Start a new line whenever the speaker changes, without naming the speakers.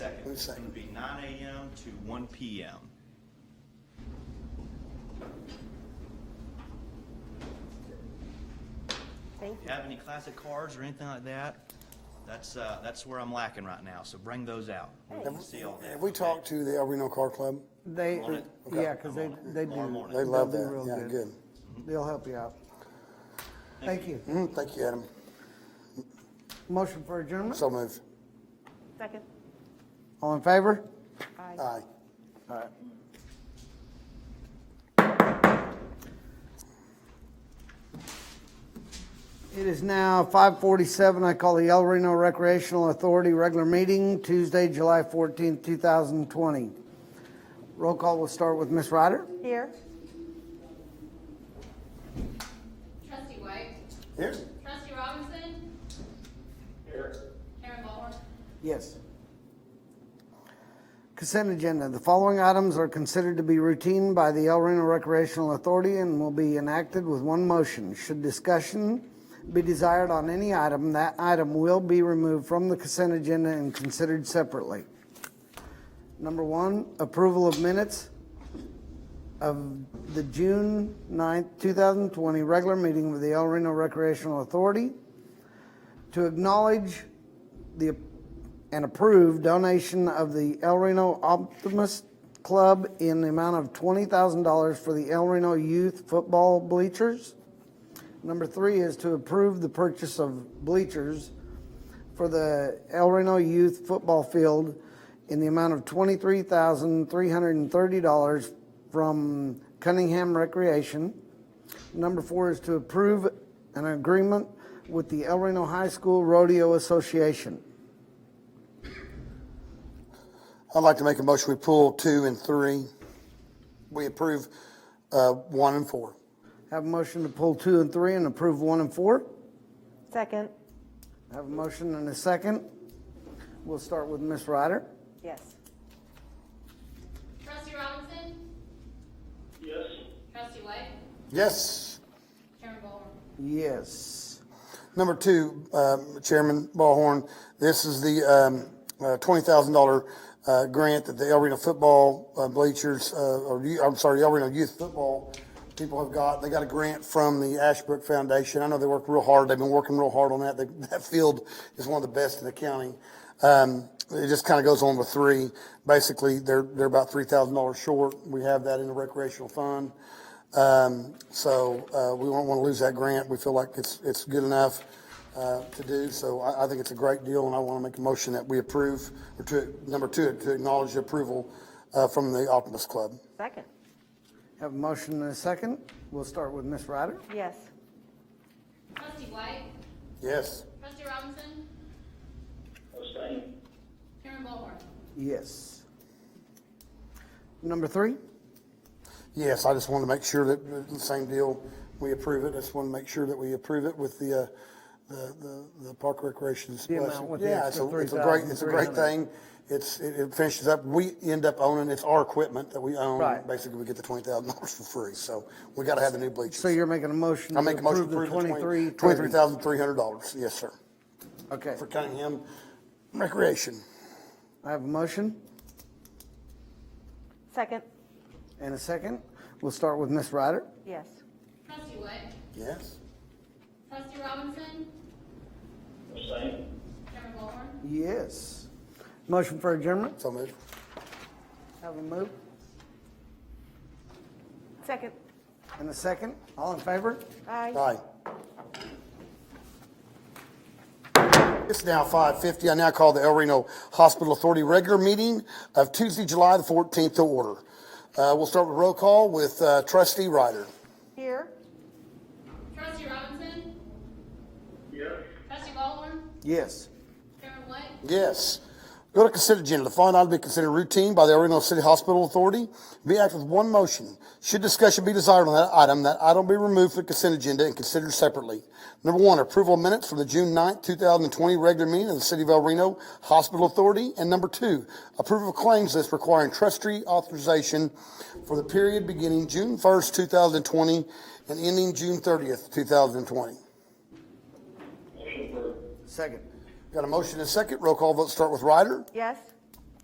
Wait a
It's
second.
gonna be nine AM to one PM.
Thank you.
Have any classic cards or anything like that? That's, uh, that's where I'm lacking right now, so bring those out. We
Have
can see all that.
Have we
okay?
talked to the El Reno Car Club?
They,
I'm on it.
yeah, because they,
I'm on it.
they
Tomorrow
do.
morning.
They love
They'll do
that.
real
Yeah, good.
They'll help you out. Thank you.
Mhm, Thank you, Adam.
Motion for adjournment?
So moved.
Second.
All in favor?
Aye.
Aye.
It is now 5:47. I call the El Reno Recreational Authority regular meeting Tuesday, July 14th, 2020. Roll call will start with Ms. Ryder.
Here.
Trustee White.
Here?
Trustee Robinson. Here. Karen Ballhorn.
Yes. Consent agenda. The following items are considered to be routine by the El Reno Recreational Authority and will be enacted with one motion. Should discussion be desired on any item, that item will be removed from the consent agenda and considered separately. Number one, approval of minutes of the June 9th, 2020 regular meeting with the El Reno Recreational Authority to acknowledge the, and approve donation of the El Reno Optimist Club in the amount of twenty thousand dollars for the El Reno Youth Football Bleachers. Number three is to approve the purchase of bleachers for the El Reno Youth Football Field in the amount of twenty-three thousand, three hundred and thirty dollars from Cunningham Recreation. Number four is to approve an agreement with the El Reno High School Rodeo Association.
I'd like to make a motion, we pull two and three. We approve uh, one and four.
Have a motion to pull two and three and approve one and four.
Second.
Have a motion and a second. We'll start with Ms. Ryder.
Yes.
Trustee Robinson. Yes. Trustee White.
Yes.
Karen Ballhorn.
Yes.
Number two, um, Chairman Ballhorn, this is the um, uh, $20,000 uh, grant that the El Reno football uh, bleachers, uh, or you- I'm sorry, El Reno youth football people have got. They got a grant from the Ashbrook Foundation. I know they worked real hard. They've been working real hard on that. They- That field is one of the best in the county. Um, It just kind of goes on with three. Basically, they're, they're about $3,000 short. We have that in the recreational fund. Um, so, uh, we won't want to lose that grant. We feel like it's, it's good enough, uh, to do. So I, I think it's a great deal and I want to make a motion that we approve, or to, number two, to acknowledge the approval, uh, from the Optimus Club.
Second.
Have a motion and a second. We'll start with Ms. Ryder.
Yes.
Trustee White.
Yes.
Trustee Robinson.
Abstain.
Karen Ballhorn.
Yes. Number three,
Yes, I just wanted to make sure that, the same deal, we approve it. I just want to make sure that we approve it with the, uh, the, the, the park recreation's.
The amount
blessing.
with the
Yeah,
extra
it's a- it's a great- It's a great
3,300.
thing. It's, it it finishes up, we end up owning, it's our equipment that we own.
Right.
Basically, we get the twenty thousand dollars for free, so we gotta have the new bleachers.
so you're making a motion
I
to
make a motion
approve
to
the
approve the
twenty-three.
twenty, twenty-three thousand three hundred dollars, yes, sir,
Okay,
for Cunningham Recreation.
I have a motion
Second.
and a second. We'll start with Ms. Ryder.
Yes.
Trustee White.
Yes?
Trustee Robinson.
Abstain.
Karen Ballhorn.
Yes. Motion for adjournment.
So moved.
Have a move
Second.
and a second. All in favor?
Aye.
Aye. It's now five fifty. I now call the El Reno Hospital Authority regular meeting of Tuesday, July the fourteenth to order. Uh, we'll start with roll call with uh, trustee Ryder.
Here.
Trustee Robinson.
Yes.
Trustee Ballhorn.
Yes.
Karen White.
Yes. Go to consent agenda. The following item be considered routine by the El Reno City Hospital Authority. Be acted with one motion. Should discussion be desired on that item, that item be removed from the consent agenda and considered separately. Number one, approval of minutes from the June 9, thousand and twenty regular meeting of the City of El Reno Hospital Authority. And number two, approval of claims list requiring trustee authorization for the period beginning June first, two thousand and twenty and ending June thirtieth, two thousand and twenty.
Motion approved.
Second.
Got a motion and a second. Roll call vote start with Ryder.
Yes.